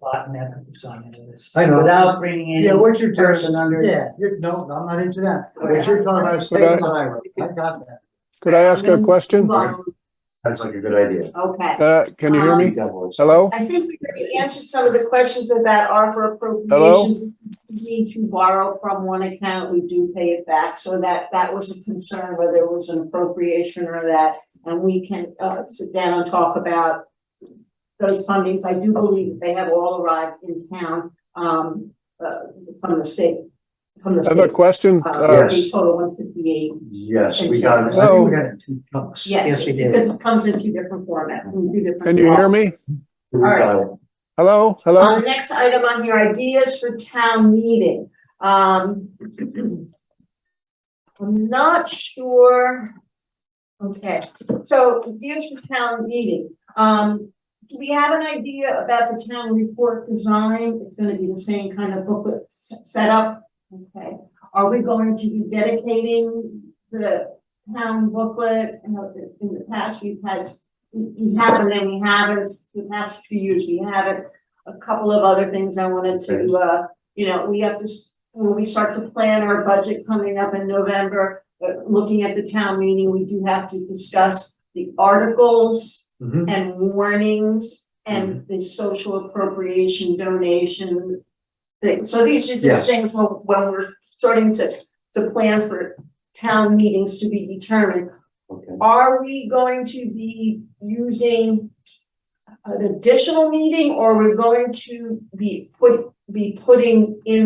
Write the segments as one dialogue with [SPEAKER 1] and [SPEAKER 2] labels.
[SPEAKER 1] bottom half of the sign into this.
[SPEAKER 2] I know.
[SPEAKER 1] Without bringing
[SPEAKER 2] Yeah,
[SPEAKER 1] any
[SPEAKER 2] what you're talking,
[SPEAKER 1] person under.
[SPEAKER 2] yeah, you're, no, I'm not into that. What you're talking about is
[SPEAKER 3] But I-
[SPEAKER 2] state highway. I got that.
[SPEAKER 3] Could I ask a question?
[SPEAKER 4] Well,
[SPEAKER 5] Sounds like a good idea.
[SPEAKER 4] Okay,
[SPEAKER 3] Uh, can you hear
[SPEAKER 2] Um,
[SPEAKER 3] me? Hello?
[SPEAKER 4] I think we already answered some of the questions about ARPA
[SPEAKER 3] Hello?
[SPEAKER 4] appropriations. We Need to borrow from one account, we do pay it back, so that, that was a concern, whether it was an appropriation or that. And we can, uh, sit down and talk about those fundings. I do believe they have all arrived in town, um, uh, from the state, from the
[SPEAKER 3] I have a
[SPEAKER 4] state.
[SPEAKER 3] question.
[SPEAKER 4] Uh,
[SPEAKER 3] Uh,
[SPEAKER 5] Yes.
[SPEAKER 4] the total one fifty-eight.
[SPEAKER 5] Yes, we got
[SPEAKER 2] I
[SPEAKER 5] it.
[SPEAKER 2] think
[SPEAKER 3] Hello?
[SPEAKER 2] we got it in two chunks.
[SPEAKER 4] Yes,
[SPEAKER 1] Yes, we did.
[SPEAKER 4] because it comes in two different formats, in two different.
[SPEAKER 3] Can you hear me?
[SPEAKER 5] We got it.
[SPEAKER 3] Hello?
[SPEAKER 4] Uh,
[SPEAKER 3] Hello?
[SPEAKER 4] the next item on here, ideas for town meeting. Um, I'm not sure. Okay, so ideas for town meeting. Um, do we have an idea about the town report design? It's gonna be the same kind of booklet s- setup. Okay, are we going to be dedicating the town booklet? You know, in- in the past, we've had, s- we we have and then we haven't. The past few years, we haven't a couple of other things I wanted to, uh, you know, we have to, s- when we start to plan our budget coming up in November, uh, looking at the town meeting, we do have to discuss the articles
[SPEAKER 2] Mhm.
[SPEAKER 4] and warnings and the social appropriation donation thing. So these are
[SPEAKER 2] Yes.
[SPEAKER 4] just things when, when we're starting to, to plan for town meetings to be determined.
[SPEAKER 5] Okay.
[SPEAKER 4] Are we going to be using an additional meeting or we're going to be put, be putting in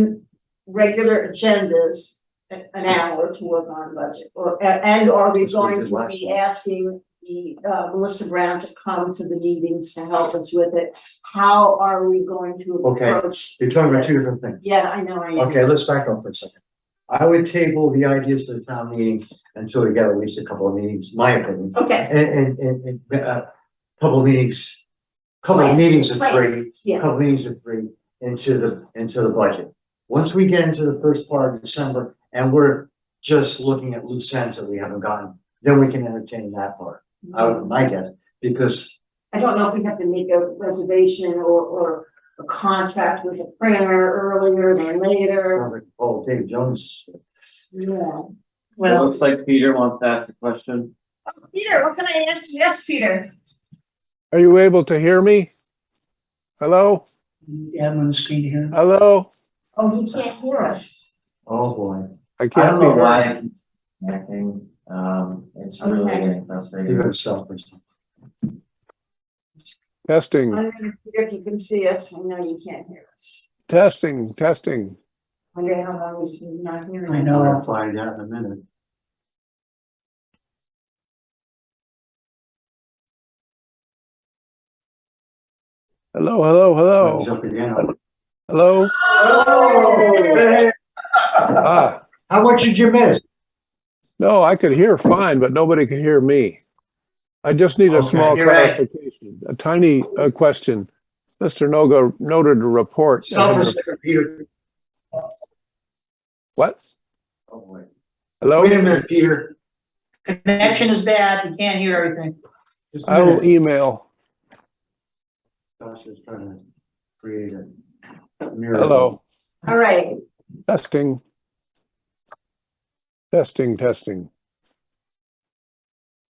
[SPEAKER 4] regular agendas a- an hour to work on budget? Or, a- and are we
[SPEAKER 5] That's what we
[SPEAKER 4] going
[SPEAKER 5] did
[SPEAKER 4] to
[SPEAKER 5] last
[SPEAKER 4] be
[SPEAKER 5] time.
[SPEAKER 4] asking the, uh, Melissa Brown to come to the meetings to help us with it? How are we going to
[SPEAKER 2] Okay.
[SPEAKER 4] approach?
[SPEAKER 2] You're talking about two different things.
[SPEAKER 4] Yeah, I know, I am.
[SPEAKER 2] Okay, let's back up for a second. I would table the ideas to the town meeting until we get at least a couple of meetings, my opinion.
[SPEAKER 4] Okay,
[SPEAKER 2] And, and, and, and, uh, couple of meetings, couple of
[SPEAKER 4] Right,
[SPEAKER 2] meetings of
[SPEAKER 4] right.
[SPEAKER 2] three,
[SPEAKER 4] yeah,
[SPEAKER 2] couple meetings of three into the, into the budget. Once we get into the first part of December and we're just looking at loose ends that we haven't gotten, then we can entertain that part. I would, my guess, because,
[SPEAKER 4] I don't know if we have to make a reservation or, or a contract with a printer earlier than
[SPEAKER 2] I
[SPEAKER 4] later,
[SPEAKER 2] was like, oh, David Jones.
[SPEAKER 4] yeah.
[SPEAKER 6] It
[SPEAKER 1] Well,
[SPEAKER 6] looks like Peter wants to ask a question.
[SPEAKER 4] Peter, what can I answer? Yes, Peter.
[SPEAKER 3] Are you able to hear me? Hello?
[SPEAKER 1] Edwin's screen here.
[SPEAKER 3] Hello?
[SPEAKER 4] Oh, he can't hear us.
[SPEAKER 2] Oh, boy.
[SPEAKER 3] I
[SPEAKER 5] I
[SPEAKER 3] can't
[SPEAKER 5] don't know
[SPEAKER 3] figure
[SPEAKER 5] why
[SPEAKER 3] out.
[SPEAKER 5] I keep connecting, um, it's really
[SPEAKER 4] Okay.
[SPEAKER 5] getting
[SPEAKER 2] You
[SPEAKER 5] frustrating.
[SPEAKER 2] gotta stop for a second.
[SPEAKER 4] I
[SPEAKER 3] Testing,
[SPEAKER 4] don't know, Peter, if you can see us, I know you can't hear us.
[SPEAKER 3] testing, testing.
[SPEAKER 4] I Wonder how long he's not hearing.
[SPEAKER 1] I
[SPEAKER 4] us.
[SPEAKER 1] know.
[SPEAKER 2] I'll find out in a minute.
[SPEAKER 3] Hello, hello,
[SPEAKER 2] He's
[SPEAKER 3] hello.
[SPEAKER 2] up again.
[SPEAKER 3] Hello?
[SPEAKER 2] Oh!
[SPEAKER 3] Ah,
[SPEAKER 2] How much did you miss?
[SPEAKER 3] no, I could hear fine, but nobody could hear me. I just need a
[SPEAKER 2] Okay,
[SPEAKER 3] small
[SPEAKER 1] you're right.
[SPEAKER 3] clarification, a tiny uh, question. Mr. Noga noted a report.
[SPEAKER 2] Stop for a second, Peter.
[SPEAKER 3] What?
[SPEAKER 2] Oh, boy.
[SPEAKER 3] Hello?
[SPEAKER 2] Wait a minute, Peter.
[SPEAKER 1] Connection is bad, you can't hear everything.
[SPEAKER 2] Just a
[SPEAKER 3] I will
[SPEAKER 2] minute.
[SPEAKER 3] email.
[SPEAKER 2] Tasha's trying to create a miracle.
[SPEAKER 3] Hello.
[SPEAKER 4] All right,
[SPEAKER 3] Testing. Testing, testing.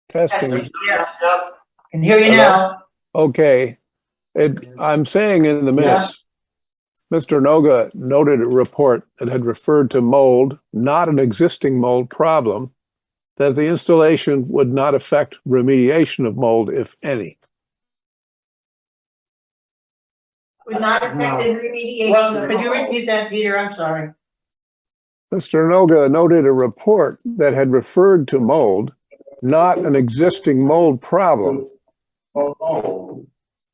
[SPEAKER 3] Testing,
[SPEAKER 1] Yes. Can hear you now.
[SPEAKER 3] okay. It, I'm saying in the minutes, Mr. Noga noted a report that had referred to mold, not an existing mold problem, that the installation would not affect remediation of mold, if any.
[SPEAKER 4] would not
[SPEAKER 2] No.
[SPEAKER 4] affect the remediation.
[SPEAKER 1] Well,
[SPEAKER 4] at
[SPEAKER 1] could you
[SPEAKER 4] all.
[SPEAKER 1] repeat that, Peter? I'm sorry.
[SPEAKER 3] Mr. Noga noted a report that had referred to mold, not an existing mold problem.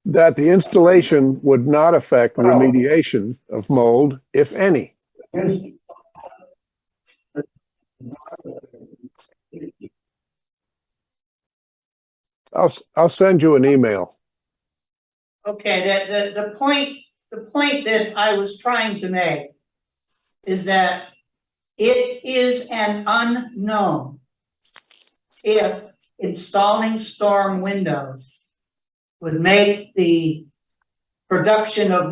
[SPEAKER 3] That the installation would not affect remediation of mold, if any. I'll, s- I'll send you an email.
[SPEAKER 1] Okay, the, the, the point, the point that I was trying to make is that it is an unknown if installing storm windows would make the production of